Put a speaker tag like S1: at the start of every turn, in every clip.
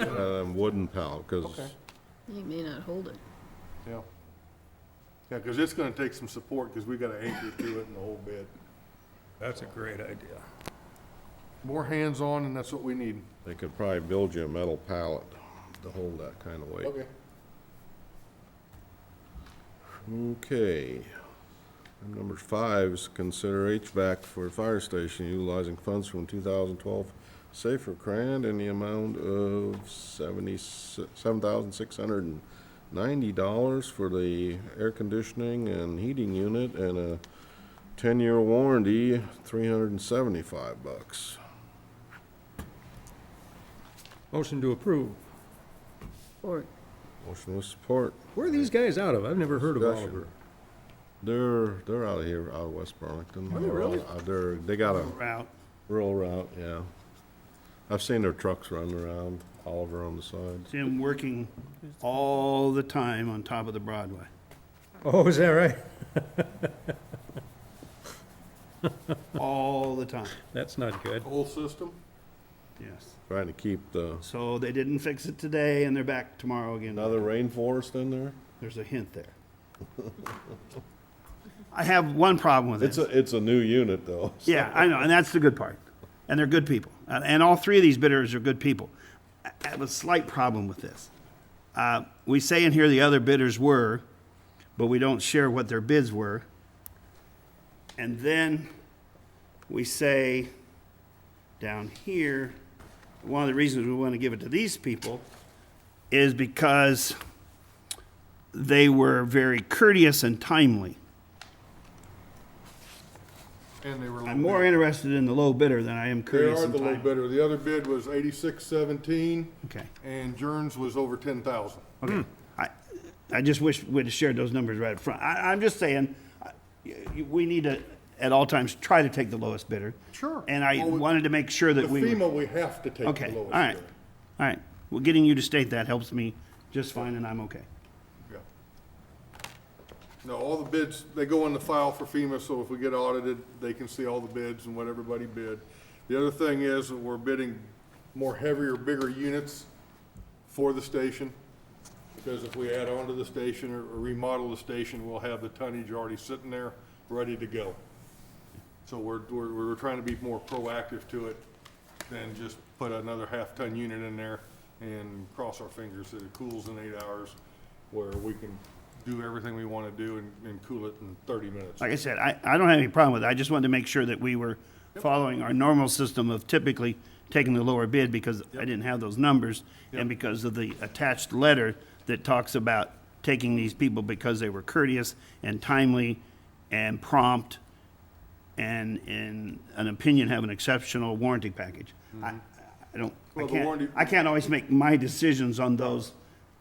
S1: um, wooden pallet,
S2: Okay.
S1: because
S3: You may not hold it.
S2: Yeah. Yeah, because it's gonna take some support, because we gotta anchor to it in the whole bed.
S4: That's a great idea.
S2: More hands-on, and that's what we need.
S1: they could probably build you a metal pallet to hold that kind of weight. Okay. Item Number five is consider HVAC for fire station utilizing funds from 2012 Safer Grant in the amount of $7,690 for the air conditioning and heating unit and a 10-year warranty, 375 bucks.
S4: Motion to approve.
S3: Or,
S1: Motion with support.
S4: Where are these guys out of? I've never heard of
S1: Discussion.
S4: Oliver.
S1: They're, they're out of here, out of West Burlington.
S4: Are they really?
S1: They're out- They're, they got a
S4: Out.
S1: Rural route, yeah. I've seen their trucks running around, Oliver on the sides.
S5: See him working all the time on top of the Broadway.
S4: Oh, is that right?
S5: All the time,
S4: That's not good.
S2: Whole system?
S5: yes.
S1: Trying to keep the,
S5: So they didn't fix it today and they're back tomorrow again.
S1: another rainforest in there?
S5: There's a hint there. I have one problem with
S1: It's a,
S5: it.
S1: it's a new unit though. so-
S5: Yeah, I know, and that's the good part. And they're good people. And and all three of these bidders are good people. I I have a slight problem with this. Uh, We say in here the other bidders were, but we don't share what their bids were. And then we say down here, one of the reasons we want to give it to these people is because they were very courteous and timely.
S2: And they were.
S5: I'm more interested in the low bidder than I am
S2: They
S5: courteous
S2: are
S5: and
S2: the little
S5: timely.
S2: bidder. The other bid was eighty-six seventeen,
S5: Okay,
S2: and Jerns was over ten thousand.
S5: okay. I, I just wish we'd have shared those numbers right up front. I, I'm just saying, I- y- we need to, at all times, try to take the lowest bidder.
S2: Sure.
S5: And I
S2: Well, we-
S5: wanted to make sure
S2: The
S5: that we. were-
S2: FEMA, we have to take the lowest
S5: Okay, all right,
S2: bidder.
S5: all right. Well, getting you to state that helps me just fine, and I'm okay.
S2: Yeah. No, all the bids, they go in the file for FEMA, so if we get audited, they can see all the bids and what everybody bid. The other thing is, that we're bidding more heavier, bigger units for the station, because if we add on to the station or remodel the station, we'll have the tonnage already sitting there, ready to go. So we're, we're, we're trying to be more proactive to it than just put another half-ton unit in there and cross our fingers that it cools in eight hours, where we can do everything we want to do and, and cool it in thirty minutes.
S5: Like I said, I, I don't have any problem with it. I just wanted to make sure that we were following our normal system of typically taking the lower bid because I didn't have those numbers and because of the attached letter that talks about taking these people because they were courteous and timely and prompt and in an opinion have an exceptional warranty package. I, I don't, I
S2: Mm-hmm. Well, the warranty-
S5: can't, I can't always make my decisions on those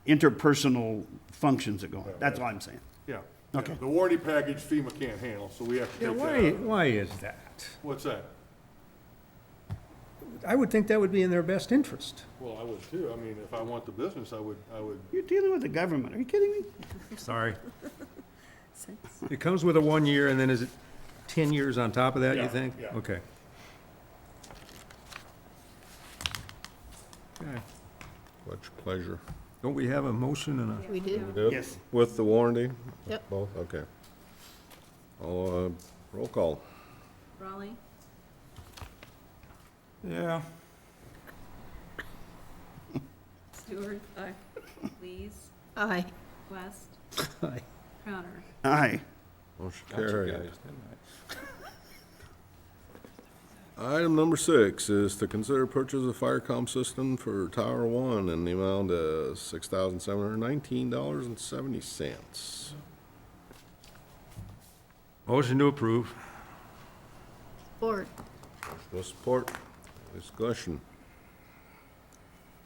S5: interpersonal functions that go on. That's all I'm saying.
S2: Yeah.
S5: Okay.
S2: The warranty package FEMA can't handle, so we have to
S4: Yeah,
S2: take
S4: why,
S2: that out.
S4: why is that?
S2: What's that?
S4: I would think that would be in their best interest.
S2: Well, I would too. I mean, if I want the business, I would, I would,
S5: You're dealing with the government. Are you kidding me?
S4: Sorry. It comes with a one year and then is it ten years on top of that, you
S2: Yeah,
S4: think?
S2: yeah.
S4: Okay. Okay.
S1: What's your pleasure?
S4: Don't we have a motion and a,
S3: we did.
S1: Yep.
S5: Yes.
S1: With the warranty?
S3: Yep.
S1: Both, okay. All, uh, roll call.
S6: Raleigh,
S4: yeah,
S6: Stewart, aye. Lees,
S3: Aye.
S6: West,
S4: Aye.
S6: Crowner.
S5: Aye.
S1: Motion carried. Item number six is to consider purchase of fire comm system for Tower One in the amount of six thousand seven hundred nineteen dollars and seventy cents.
S4: Motion to approve.
S3: Or,
S1: With support, discussion.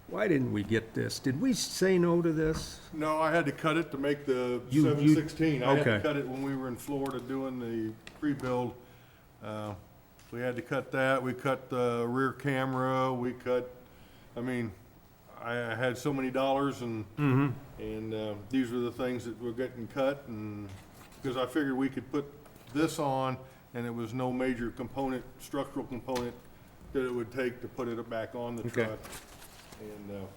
S4: Why didn't we get this? Did we say no to this?
S2: no, I had to cut it to make the
S4: You- you-
S2: seven sixteen. I had to
S4: okay.
S2: cut it when we were in Florida doing the pre-build. Uh, We had to cut that. We cut the rear camera. We cut, I mean, I I had so many dollars and,
S4: Mm-hmm.
S2: and uh, these were the things that were getting cut and, because I figured we could put this on and it was no major component, structural component that it would take to put it back on the
S4: Okay.
S2: truck. And, uh,